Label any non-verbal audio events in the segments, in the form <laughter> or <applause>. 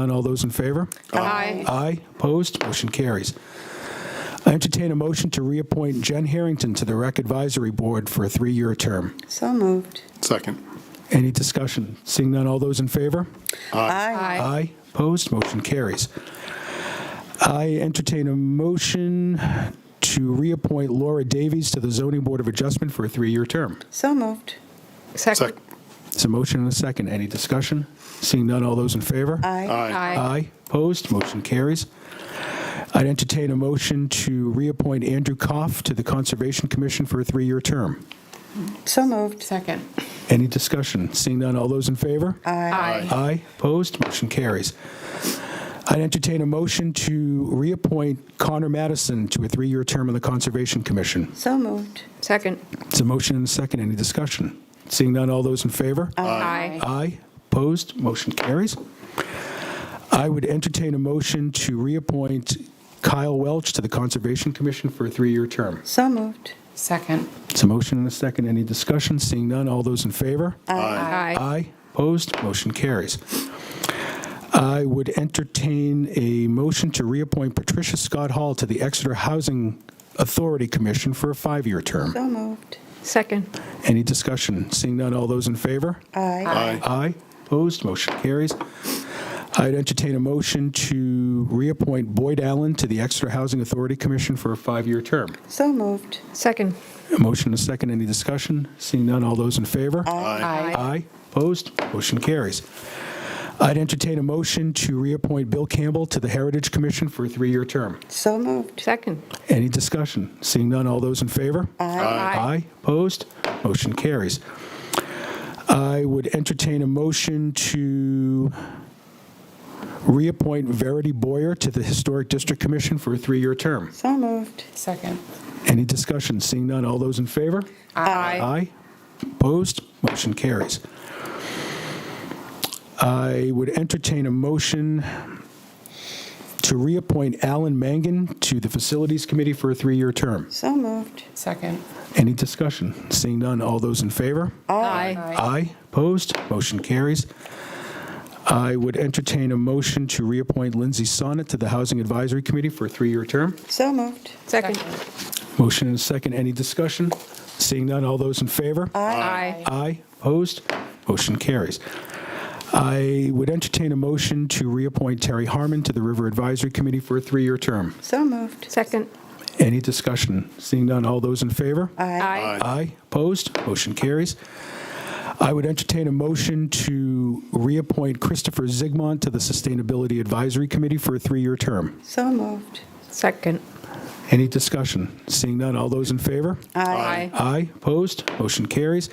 None, all those in favor? Aye. Aye, opposed, motion carries. I entertain a motion to reappoint Jen Harrington to the Rec Advisory Board for a three-year term. So moved. Second. Any discussion? Seeing none, all those in favor? Aye. Aye, opposed, motion carries. I entertain a motion to reappoint Laura Davies to the Zoning Board of Adjustment for a three-year term. So moved. Second. It's a motion and a second. Any discussion? Seeing none, all those in favor? Aye. Aye. Opposed? Motion carries. I'd entertain a motion to reappoint Andrew Koff to the Conservation Commission for a three-year term. So moved. Second. Any discussion? Seeing none, all those in favor? Aye. Aye. Opposed? Motion carries. I'd entertain a motion to reappoint Connor Madison to a three-year term on the Conservation Commission. So moved. Second. It's a motion and a second. Any discussion? Seeing none, all those in favor? Aye. Aye. Opposed? Motion carries. I would entertain a motion to reappoint Kyle Welch to the Conservation Commission for a three-year term. So moved. Second. It's a motion and a second. Any discussion? Seeing none, all those in favor? Aye. Aye. Opposed? Motion carries. I would entertain a motion to reappoint Patricia Scott Hall to the Exeter Housing Authority Commission for a five-year term. So moved. Second. Any discussion? Seeing none, all those in favor? Aye. Aye. Aye. Opposed, motion carries. I'd entertain a motion to reappoint Boyd Allen to the Exeter Housing Authority Commission for a five-year term. So moved. Second. A motion and a second, any discussion? Seeing none, all those in favor? Aye. Opposed, motion carries. I'd entertain a motion to reappoint Bill Campbell to the Heritage Commission for a three-year term. So moved. Second. Any discussion? Seeing none, all those in favor? Aye. Opposed? Motion carries. I would entertain a motion to reappoint Verity Boyer to the Historic District Commission for a three-year term. So moved. Second. Any discussion? Seeing none, all those in favor? Aye. Aye. Opposed? Motion carries. I would entertain a motion to reappoint Alan Mangan to the Facilities Committee for a three-year term. So moved. Second. Any discussion? Seeing none, all those in favor? Aye. Aye. Opposed? Motion carries. I would entertain a motion to reappoint Lindsay Sonnet to the Housing Advisory Committee for a three-year term. So moved. Second. Motion and a second. Any discussion? Seeing none, all those in favor? Aye. Aye. Opposed? Motion carries. I would entertain a motion to reappoint Terry Harmon to the River Advisory Committee for a three-year term. So moved. Second. Any discussion? Seeing none, all those in favor? Aye. Aye. Opposed? Motion carries. I would entertain a motion to reappoint Christopher Zigmond to the Sustainability Advisory Committee for a three-year term. So moved. Second. Any discussion? Seeing none, all those in favor? Aye. Aye. Opposed? Motion carries.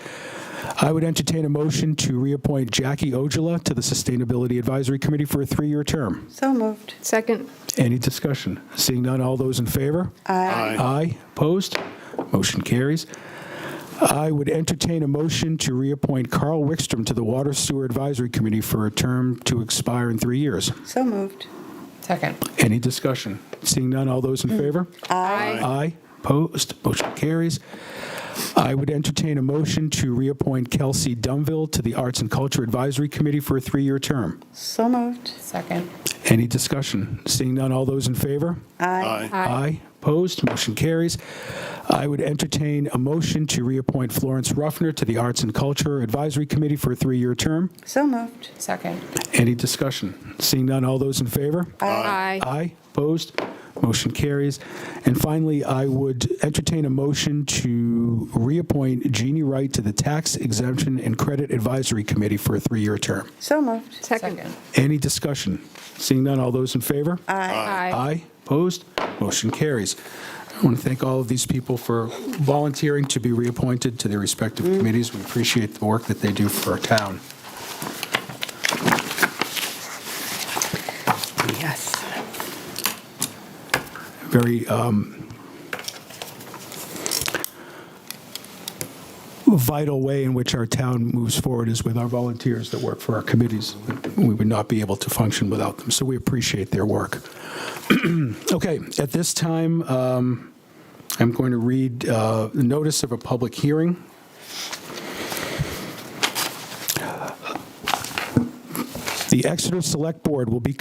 I would entertain a motion to reappoint Jackie Ojala to the Sustainability Advisory Committee for a three-year term. So moved. Second. Any discussion? Seeing none, all those in favor? Aye. Opposed? Motion carries. I would entertain a motion to reappoint Carl Wickstrom to the Water Sewer Advisory Committee for a term to expire in three years. So moved. Second. Any discussion? Seeing none, all those in favor? Aye. Aye. Opposed? Motion carries. I would entertain a motion to reappoint Kelsey Dunville to the Arts and Culture Advisory Committee for a three-year term. So moved. Second. Any discussion? Seeing none, all those in favor? Aye. Aye. Opposed? Motion carries. I would entertain a motion to reappoint Florence Ruffner to the Arts and Culture Advisory Committee for a three-year term. So moved. Second. Any discussion? Seeing none, all those in favor? Aye. Aye. Opposed? Motion carries. And finally, I would entertain a motion to reappoint Jeannie Wright to the Tax Exemption and Credit Advisory Committee for a three-year term. So moved. Second. Any discussion? Seeing none, all those in favor? Aye. Opposed? Motion carries. I want to thank all of these people for volunteering to be reappointed to their respective committees. We appreciate the work that they do for our town. Yes. Very um, vital way in which our town moves forward is with our volunteers that work for our committees. We would not be able to function without them, so we appreciate their work. <clears throat> Okay, at this time, um, I'm going to read uh, the notice of a public hearing. The Exeter Select Board will be